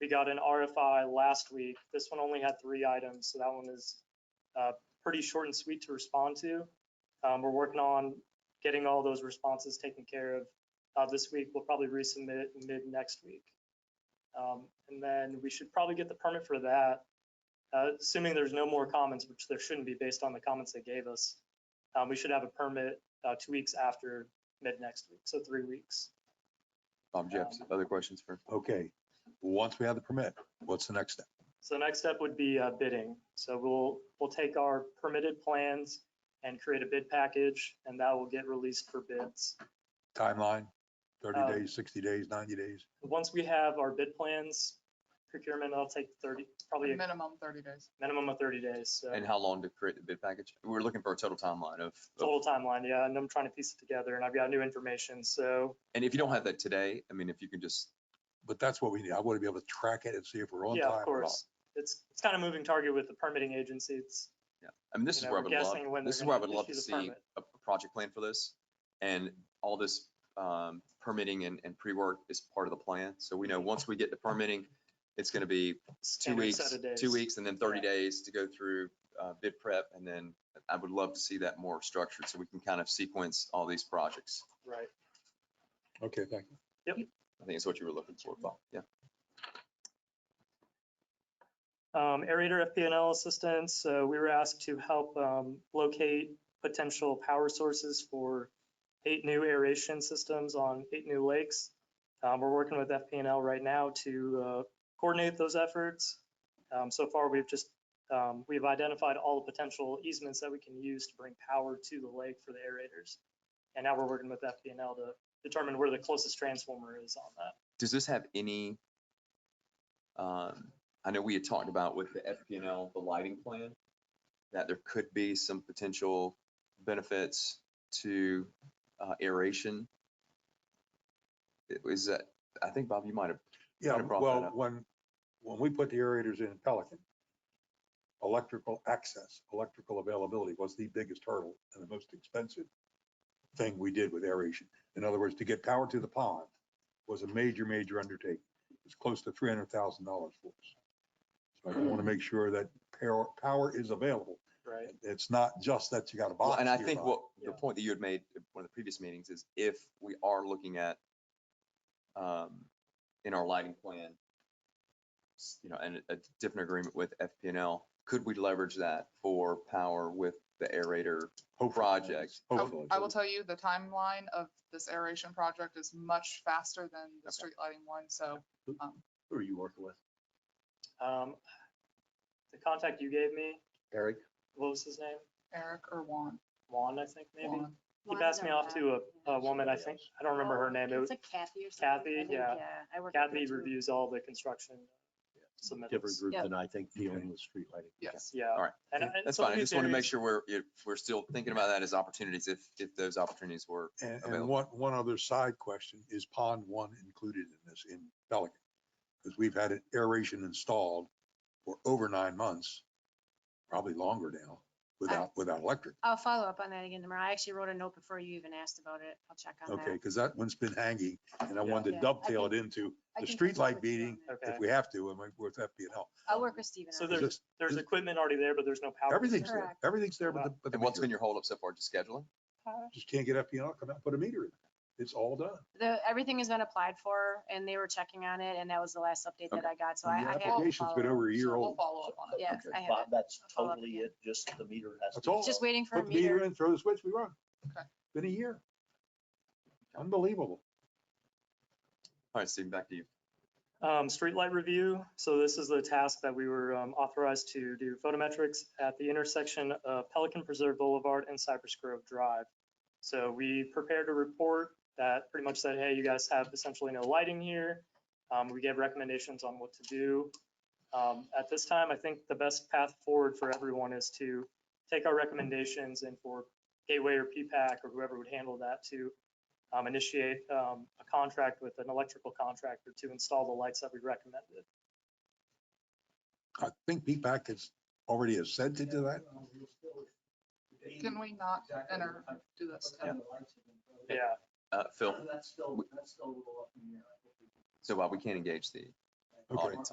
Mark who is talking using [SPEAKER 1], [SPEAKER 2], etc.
[SPEAKER 1] We got an RFI last week. This one only had three items, so that one is uh, pretty short and sweet to respond to. Um, We're working on getting all those responses taken care of uh, this week. We'll probably resubmit it mid next week. Um, And then we should probably get the permit for that, uh, assuming there's no more comments, which there shouldn't be based on the comments they gave us. Um, We should have a permit uh, two weeks after mid next week, so three weeks.
[SPEAKER 2] Bob Jeffs,
[SPEAKER 1] Um,
[SPEAKER 2] other questions for,
[SPEAKER 3] Okay, once we have the permit, what's the next step?
[SPEAKER 1] So the next step would be uh, bidding. So we'll, we'll take our permitted plans and create a bid package, and that will get released for bids.
[SPEAKER 3] Timeline,
[SPEAKER 1] Uh,
[SPEAKER 3] thirty days, sixty days, ninety days?
[SPEAKER 1] Once we have our bid plans, procurement, that'll take 30, probably a
[SPEAKER 4] Minimum thirty days.
[SPEAKER 1] minimum of 30 days. So
[SPEAKER 2] and how long to create the bid package? We're looking for a total timeline of, of-
[SPEAKER 1] total timeline, yeah, and I'm trying to piece it together, and I've got new information, so
[SPEAKER 2] and if you don't have that today, I mean, if you can just,
[SPEAKER 3] But that's what we need. I want to be able to track it and see if we're on
[SPEAKER 1] yeah,
[SPEAKER 3] time.
[SPEAKER 1] of
[SPEAKER 3] or not.
[SPEAKER 1] course. It's, it's kind of moving target with the permitting agency. It's,
[SPEAKER 2] I mean, this
[SPEAKER 1] You
[SPEAKER 2] is
[SPEAKER 1] know,
[SPEAKER 2] where I
[SPEAKER 1] we're
[SPEAKER 2] would love,
[SPEAKER 1] guessing when
[SPEAKER 2] this is
[SPEAKER 1] they're
[SPEAKER 2] where I
[SPEAKER 1] gonna
[SPEAKER 2] would love to
[SPEAKER 1] issue the
[SPEAKER 2] see
[SPEAKER 1] permit.
[SPEAKER 2] a a project plan for this. And all this um, permitting and, and pre-work is part of the plan. So we know,
[SPEAKER 1] Mm-hmm.
[SPEAKER 2] once we get the permitting, it's going to be
[SPEAKER 1] it's
[SPEAKER 2] two
[SPEAKER 1] standard set
[SPEAKER 2] weeks,
[SPEAKER 1] of
[SPEAKER 2] two
[SPEAKER 1] days.
[SPEAKER 2] weeks, and then 30
[SPEAKER 1] Yeah.
[SPEAKER 2] days to go through uh, bid prep. And then I would love to see that more structured so we can kind of sequence all these projects.
[SPEAKER 1] Right.
[SPEAKER 3] Okay, thank you.
[SPEAKER 2] I think that's what you were looking for, Bob. Yeah.
[SPEAKER 1] um, aerator FPNL assistance. So we were asked to help um, locate potential power sources for eight new aeration systems on eight new lakes. Um, we're working with FPNL right now to uh, coordinate those efforts. Um, so far, we've just um, we've identified all the potential easements that we can use to bring power to the lake for the aerators, and now we're working with FPNL to determine where the closest transformer is on that.
[SPEAKER 2] Does this have any, um, I know we had talked about with the FPNL, the lighting plan, that there could be some potential benefits to uh, aeration. It was that, I think, Bob, you might have,
[SPEAKER 3] Yeah,
[SPEAKER 2] Kinda brought that
[SPEAKER 3] well,
[SPEAKER 2] up.
[SPEAKER 3] when, when we put the aerators in Pelican, electrical access, electrical availability was the biggest hurdle and the most expensive thing we did with aeration. In other words, to get power to the pond was a major, major undertaking. It's close to three hundred thousand dollars for us. So I want
[SPEAKER 4] Hmm.
[SPEAKER 3] to make sure that power, power is available.
[SPEAKER 1] Right.
[SPEAKER 3] It's not just that you got a
[SPEAKER 2] well,
[SPEAKER 3] box.
[SPEAKER 2] and I
[SPEAKER 3] nearby.
[SPEAKER 2] think what, the
[SPEAKER 1] Yeah.
[SPEAKER 2] point that you had made at one of the previous meetings is if we are looking at, um, in our lighting plan, s- you know, and a a different agreement with FPNL, could we leverage that for power with the aerator
[SPEAKER 3] Hopefully.
[SPEAKER 2] project.
[SPEAKER 4] I-
[SPEAKER 3] Hopefully.
[SPEAKER 4] Oh, I will tell you, the timeline of this aeration project is much faster than the
[SPEAKER 2] Okay.
[SPEAKER 4] street lighting one, so um,
[SPEAKER 5] Who are you working with?
[SPEAKER 1] Um, the contact you gave me,
[SPEAKER 5] Eric?
[SPEAKER 1] what was his name?
[SPEAKER 4] Eric or Juan.
[SPEAKER 1] Juan, I think maybe.
[SPEAKER 4] Juan.
[SPEAKER 1] He
[SPEAKER 6] Juan
[SPEAKER 1] passed me off
[SPEAKER 6] Zamora.
[SPEAKER 1] to a, a woman, I think, I don't remember her name. It
[SPEAKER 6] It's
[SPEAKER 1] was
[SPEAKER 6] like Kathy or something.
[SPEAKER 1] Kathy,
[SPEAKER 6] I think,
[SPEAKER 1] yeah.
[SPEAKER 6] I work with her
[SPEAKER 1] Kathy
[SPEAKER 6] too.
[SPEAKER 1] reviews all the construction
[SPEAKER 5] Different
[SPEAKER 1] submittals.
[SPEAKER 5] group
[SPEAKER 6] Yeah.
[SPEAKER 5] than I think
[SPEAKER 3] Okay.
[SPEAKER 5] dealing with street lighting.
[SPEAKER 4] Yes.
[SPEAKER 1] Yeah.
[SPEAKER 2] All right.
[SPEAKER 1] And- and
[SPEAKER 2] That's
[SPEAKER 1] some
[SPEAKER 2] fine. I
[SPEAKER 1] new
[SPEAKER 2] just want to make
[SPEAKER 1] theories-
[SPEAKER 2] sure we're, if we're still thinking about that as opportunities, if, if those opportunities were.
[SPEAKER 3] And, and
[SPEAKER 2] available.
[SPEAKER 3] one, one other side question, is pond one included in this in Pelican? Because we've had it aeration installed for over nine months, probably longer now, without, without electric.
[SPEAKER 6] I'll follow up on that again tomorrow. I actually wrote a note before you even asked about it. I'll check on that.
[SPEAKER 3] Okay, because that one's been hanging and I wanted
[SPEAKER 6] Yeah,
[SPEAKER 3] to
[SPEAKER 6] I
[SPEAKER 3] dovetail it into,
[SPEAKER 6] I
[SPEAKER 3] the
[SPEAKER 6] can catch up
[SPEAKER 3] streetlight
[SPEAKER 6] with you on
[SPEAKER 3] meeting-
[SPEAKER 6] that.
[SPEAKER 1] Okay.
[SPEAKER 3] if we have to, and we- with FPL.
[SPEAKER 6] I'll work with Steven.
[SPEAKER 1] So
[SPEAKER 6] on that.
[SPEAKER 1] there's, there's equipment already there, but there's no power.
[SPEAKER 3] Everything's there,
[SPEAKER 6] Correct.
[SPEAKER 3] everything's there, but the, but the
[SPEAKER 2] And what's been
[SPEAKER 3] meter,
[SPEAKER 2] your holdup so far, just scheduling?
[SPEAKER 3] just can't get FPL, to come out, and put a meter in. It's all done.
[SPEAKER 6] The, everything has been applied for and they were checking on it and that was the last update that I got. So I, I
[SPEAKER 3] And
[SPEAKER 6] have.
[SPEAKER 3] The
[SPEAKER 6] to
[SPEAKER 3] application's been
[SPEAKER 6] follow up.
[SPEAKER 3] over a year
[SPEAKER 4] So We'll
[SPEAKER 3] old.
[SPEAKER 4] follow up on it.
[SPEAKER 6] Yeah, I have
[SPEAKER 5] Bob,
[SPEAKER 6] it.
[SPEAKER 5] that's
[SPEAKER 6] I'll follow up
[SPEAKER 5] totally
[SPEAKER 6] again.
[SPEAKER 5] it, just the meter has to.
[SPEAKER 3] That's all.
[SPEAKER 5] be
[SPEAKER 6] Just
[SPEAKER 5] solved.
[SPEAKER 6] waiting for a
[SPEAKER 3] Put the meter
[SPEAKER 6] meter.
[SPEAKER 3] in, throw the switch, we run.
[SPEAKER 4] Okay.
[SPEAKER 3] Been a year. Unbelievable.
[SPEAKER 2] All right, Steve, back to you.
[SPEAKER 1] Um, streetlight review, so this is the task that we were um, authorized to do photometrics at the intersection of Pelican Preserve Boulevard and Cypress Grove Drive. So we prepared a report that pretty much said, hey, you guys have essentially no lighting here. Um, we gave recommendations on what to do. Um, at this time, I think the best path forward for everyone is to take our recommendations and for Gateway or P-PAC or whoever would handle that to um, initiate um, a contract with an electrical contractor to install the lights that we recommended.
[SPEAKER 3] I think P-PAC has already assented to that.
[SPEAKER 4] Can we not enter, do this?
[SPEAKER 1] Yeah,
[SPEAKER 2] Uh, Phil,
[SPEAKER 5] That's still, that's still a little up in the air. I think we can-
[SPEAKER 2] so Bob, we can't engage the
[SPEAKER 3] Okay.
[SPEAKER 2] audience